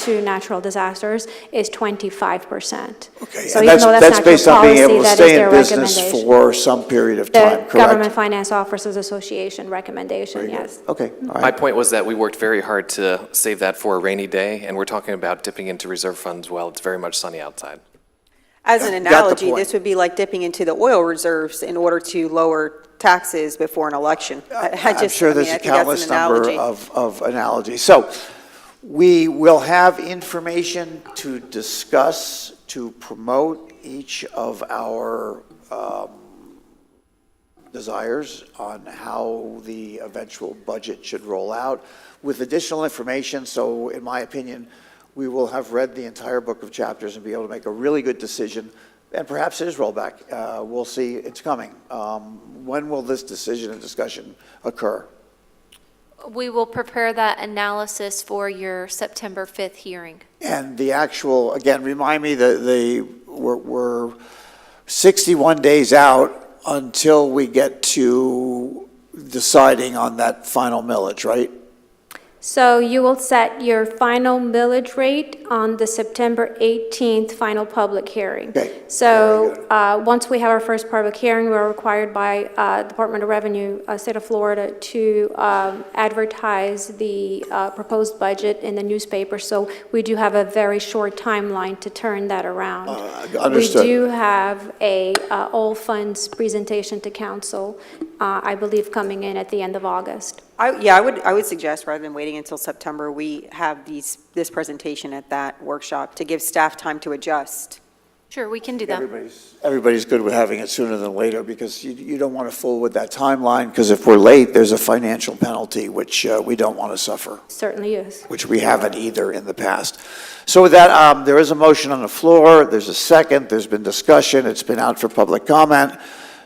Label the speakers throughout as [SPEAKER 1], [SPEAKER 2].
[SPEAKER 1] to natural disasters is 25%.
[SPEAKER 2] Okay,
[SPEAKER 1] So even
[SPEAKER 2] and that's,
[SPEAKER 1] though
[SPEAKER 2] that's
[SPEAKER 1] not good
[SPEAKER 2] based on being
[SPEAKER 1] policy,
[SPEAKER 2] able to
[SPEAKER 1] that is
[SPEAKER 2] stay
[SPEAKER 1] their
[SPEAKER 2] in business
[SPEAKER 1] recommendation.
[SPEAKER 2] for some period of time,
[SPEAKER 1] The
[SPEAKER 2] correct?
[SPEAKER 1] Government Finance Officers Association recommendation,
[SPEAKER 2] Very good.
[SPEAKER 1] yes.
[SPEAKER 2] Okay, all
[SPEAKER 3] My
[SPEAKER 2] right.
[SPEAKER 3] point was that we worked very hard to save that for a rainy day, and we're talking about dipping into reserve funds while it's very much sunny outside.
[SPEAKER 4] As an
[SPEAKER 2] Got the
[SPEAKER 4] analogy,
[SPEAKER 2] point.
[SPEAKER 4] this would be like dipping into the oil reserves in order to lower taxes before an election. I- I
[SPEAKER 2] Uh, I'm
[SPEAKER 4] just- I
[SPEAKER 2] sure
[SPEAKER 4] mean,
[SPEAKER 2] there's
[SPEAKER 4] I
[SPEAKER 2] a
[SPEAKER 4] think that's an
[SPEAKER 2] countless number
[SPEAKER 4] analogy.
[SPEAKER 2] of, of analogies. So we will have information to discuss, to promote each of our um, desires on how the eventual budget should roll out with additional information. So in my opinion, we will have read the entire book of chapters and be able to make a really good decision. And perhaps it is rollback. Uh, We'll see. It's coming. Um, When will this decision and discussion occur?
[SPEAKER 5] We will prepare that analysis for your September 5th hearing.
[SPEAKER 2] And the actual, again, remind me that the, we're, we're 61 days out until we get to deciding on that final millage, right?
[SPEAKER 1] So you will set your final millage rate on the September 18th final public hearing.
[SPEAKER 2] Okay, very
[SPEAKER 1] So
[SPEAKER 2] good.
[SPEAKER 1] uh, once we have our first public hearing, we're required by uh, Department of Revenue, uh, State of Florida, to um, advertise the uh, proposed budget in the newspaper. So we do have a very short timeline to turn that around.
[SPEAKER 2] Uh, understood.
[SPEAKER 1] We do have a uh, all funds presentation to council, uh, I believe, coming in at the end of August.
[SPEAKER 4] I- Yeah, I would, I would suggest, rather than waiting until September, we have these, this presentation at that workshop to give staff time to adjust.
[SPEAKER 5] Sure, we can do that.
[SPEAKER 2] Everybody's, everybody's good with having it sooner than later, because you, you don't want to fool with that timeline, because if we're late, there's a financial penalty, which uh, we don't want to suffer.
[SPEAKER 1] Certainly is.
[SPEAKER 2] which we haven't either in the past. So with that, um, there is a motion on the floor, there's a second, there's been discussion, it's been out for public comment.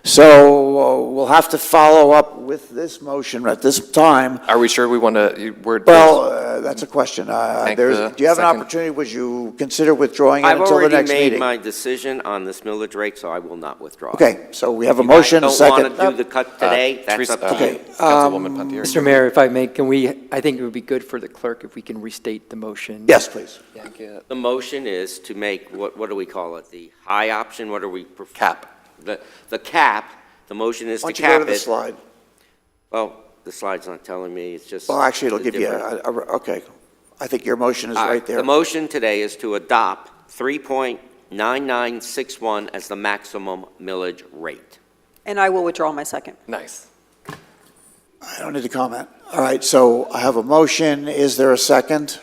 [SPEAKER 2] So uh, we'll have to follow up with this motion at this time.
[SPEAKER 3] Are we sure we want to, we're,
[SPEAKER 2] Well, uh, that's a question. Uh,
[SPEAKER 3] Thank
[SPEAKER 2] There's,
[SPEAKER 3] the
[SPEAKER 2] do you have an
[SPEAKER 3] second.
[SPEAKER 2] opportunity, would you consider withdrawing it
[SPEAKER 6] I've
[SPEAKER 2] until the
[SPEAKER 6] already
[SPEAKER 2] next
[SPEAKER 6] made
[SPEAKER 2] meeting?
[SPEAKER 6] my decision on this millage rate, so I will not withdraw.
[SPEAKER 2] Okay, so we have a motion, a
[SPEAKER 6] Don't want to do the
[SPEAKER 2] second.
[SPEAKER 6] cut
[SPEAKER 3] Uh,
[SPEAKER 6] today, that's
[SPEAKER 3] Teresa-
[SPEAKER 6] up
[SPEAKER 3] uh,
[SPEAKER 6] to you.
[SPEAKER 3] Councilwoman Pontieri.
[SPEAKER 7] Mr. Mayor, if I may, can we, I think it would be good for the clerk if we can restate the motion.
[SPEAKER 2] Yes, please.
[SPEAKER 6] The motion is to make, what, what do we call it? The high option, what are we? pref-
[SPEAKER 3] Cap.
[SPEAKER 6] The, the cap, the motion is
[SPEAKER 2] Why
[SPEAKER 6] to
[SPEAKER 2] don't you go to
[SPEAKER 6] cap
[SPEAKER 2] the
[SPEAKER 6] it.
[SPEAKER 2] slide?
[SPEAKER 6] Well, the slide's not telling me, it's just.
[SPEAKER 2] Well, actually, it'll
[SPEAKER 6] the
[SPEAKER 2] give you,
[SPEAKER 6] different-
[SPEAKER 2] a- a- okay. I think your motion is
[SPEAKER 6] All
[SPEAKER 2] right there.
[SPEAKER 6] The motion today is to adopt 3.9961 as the maximum millage rate.
[SPEAKER 4] And I will withdraw my second.
[SPEAKER 3] nice.
[SPEAKER 2] I don't need to comment. All right, so I have a motion. Is there a second?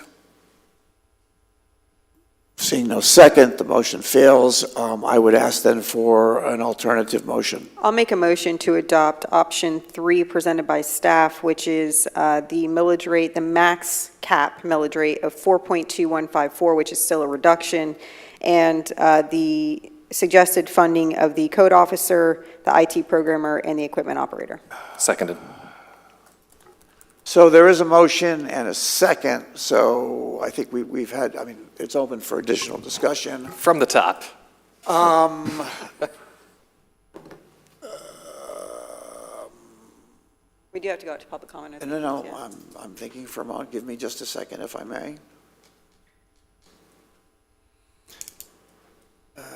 [SPEAKER 2] Seeing no second, the motion fails. Um, I would ask then for an alternative motion.
[SPEAKER 4] I'll make a motion to adopt option three presented by staff, which is uh, the millage rate, the max cap millage rate of 4.2154, which is still a reduction, and uh, the suggested funding of the code officer, the IT programmer, and the equipment operator.
[SPEAKER 3] Seconded.
[SPEAKER 2] So there is a motion and a second, so I think we, we've had, I mean, it's open for additional discussion.
[SPEAKER 3] From the top.
[SPEAKER 4] We do have to go out to public comment. I
[SPEAKER 2] And no, no, um,
[SPEAKER 4] think, yeah.
[SPEAKER 2] I'm, I'm thinking for a moment. Give me just a second, if I may. Uh,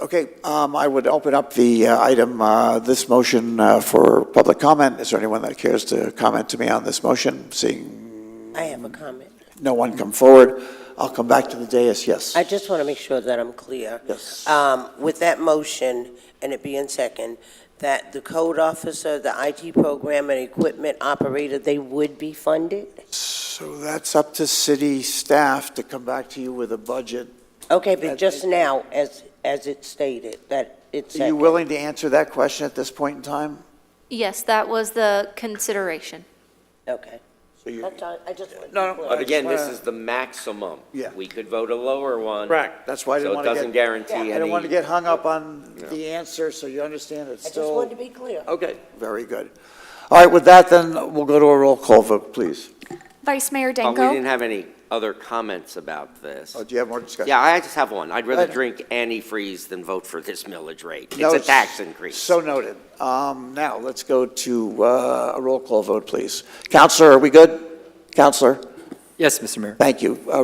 [SPEAKER 2] Okay, um, I would open up the uh, item, uh, this motion uh, for public comment. Is there anyone that cares to comment to me on this motion? Seeing
[SPEAKER 8] I have a comment.
[SPEAKER 2] no one come forward, I'll come back to the dais, yes.
[SPEAKER 8] I just want to make sure that I'm clear.
[SPEAKER 2] Yes.
[SPEAKER 8] Um, With that motion, and it being second, that the code officer, the IT program, and equipment operator, they would be funded?
[SPEAKER 2] So that's up to city staff to come back to you with a budget.
[SPEAKER 8] Okay, but just now, as, as it stated, that it's
[SPEAKER 2] Are you
[SPEAKER 8] second.
[SPEAKER 2] willing to answer that question at this point in time?
[SPEAKER 5] Yes, that was the consideration.
[SPEAKER 8] Okay.
[SPEAKER 2] So you-
[SPEAKER 8] That's all, I just wanted to.
[SPEAKER 2] No, no,
[SPEAKER 8] be clear.
[SPEAKER 6] But again, this
[SPEAKER 2] wanna-
[SPEAKER 6] is the maximum.
[SPEAKER 2] Yeah.
[SPEAKER 6] We could vote a lower one.
[SPEAKER 2] Correct. That's why I didn't wanna
[SPEAKER 6] So it doesn't
[SPEAKER 2] get-
[SPEAKER 6] guarantee any.
[SPEAKER 2] I don't want to get hung up on the answer, so you understand it's
[SPEAKER 8] I just wanted to
[SPEAKER 2] still
[SPEAKER 8] be clear.
[SPEAKER 6] Okay.
[SPEAKER 2] very good. All right, with that, then, we'll go to a roll call vote, please.
[SPEAKER 9] Vice Mayor
[SPEAKER 6] Uh, We didn't
[SPEAKER 9] Danko?
[SPEAKER 6] have any other comments about this.
[SPEAKER 2] Oh, do you have more discussion?
[SPEAKER 6] Yeah, I just have one. I'd rather
[SPEAKER 2] ahead.
[SPEAKER 6] drink antifreeze than vote for this millage rate.
[SPEAKER 2] No,
[SPEAKER 6] It's a tax increase.
[SPEAKER 2] So noted. Um, Now, let's go to uh, a roll call vote, please. Counselor, are we good? Counselor,
[SPEAKER 7] Yes, Mr. Mayor.
[SPEAKER 2] thank you. Uh,